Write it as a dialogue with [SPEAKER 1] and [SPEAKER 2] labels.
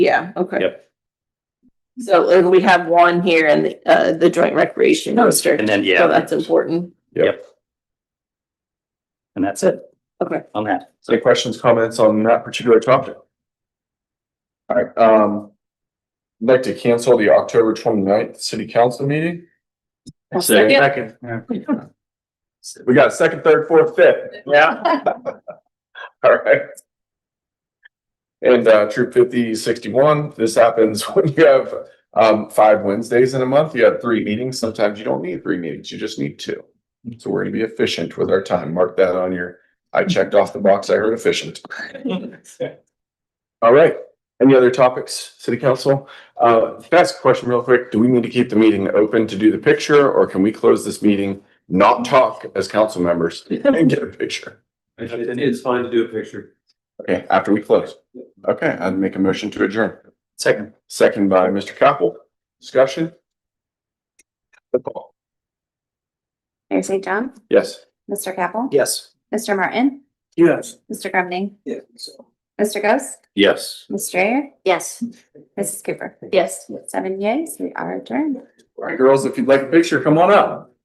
[SPEAKER 1] Yeah, okay.
[SPEAKER 2] Yep.
[SPEAKER 1] So and we have one here in the, uh, the joint recreation district.
[SPEAKER 2] And then,
[SPEAKER 1] So
[SPEAKER 2] yeah,
[SPEAKER 1] that's important.
[SPEAKER 2] and that's it
[SPEAKER 1] Okay.
[SPEAKER 2] on that. So
[SPEAKER 3] Any questions, comments on that particular topic? All right, um, I'd like to cancel the October 29th city council meeting.
[SPEAKER 1] I'll second.
[SPEAKER 3] Second. We got a second, third, fourth, fifth.
[SPEAKER 2] Yeah.
[SPEAKER 3] All right. And uh, troop fifty sixty-one, this happens when you have um, five Wednesdays in a month, you have three meetings. Sometimes you don't need three meetings, you just need two. So we're gonna be efficient with our time. Mark that on your, I checked off the box, I heard efficient. All right, any other topics, city council? Uh, can I ask a question real quick? Do we need to keep the meeting open to do the picture or can we close this meeting? Not talk as council members and get a picture?
[SPEAKER 4] It's fine to do a picture.
[SPEAKER 3] Okay, after we close. Okay, I'd make a motion to adjourn.
[SPEAKER 2] Second.
[SPEAKER 3] Second by Mr. Capel. Discussion? The call.
[SPEAKER 5] Mayor St. John,
[SPEAKER 3] Yes.
[SPEAKER 5] Mr. Capel,
[SPEAKER 2] Yes.
[SPEAKER 5] Mr. Martin,
[SPEAKER 2] Yes.
[SPEAKER 5] Mr. Grumney,
[SPEAKER 4] Yeah.
[SPEAKER 5] Mr. Ghost,
[SPEAKER 3] Yes.
[SPEAKER 5] Mr. Ayer,
[SPEAKER 1] Yes,
[SPEAKER 5] Mrs. Cooper.
[SPEAKER 1] yes.
[SPEAKER 5] Seven yeas, we are adjourned.
[SPEAKER 3] All right, girls, if you'd like a picture, come on up.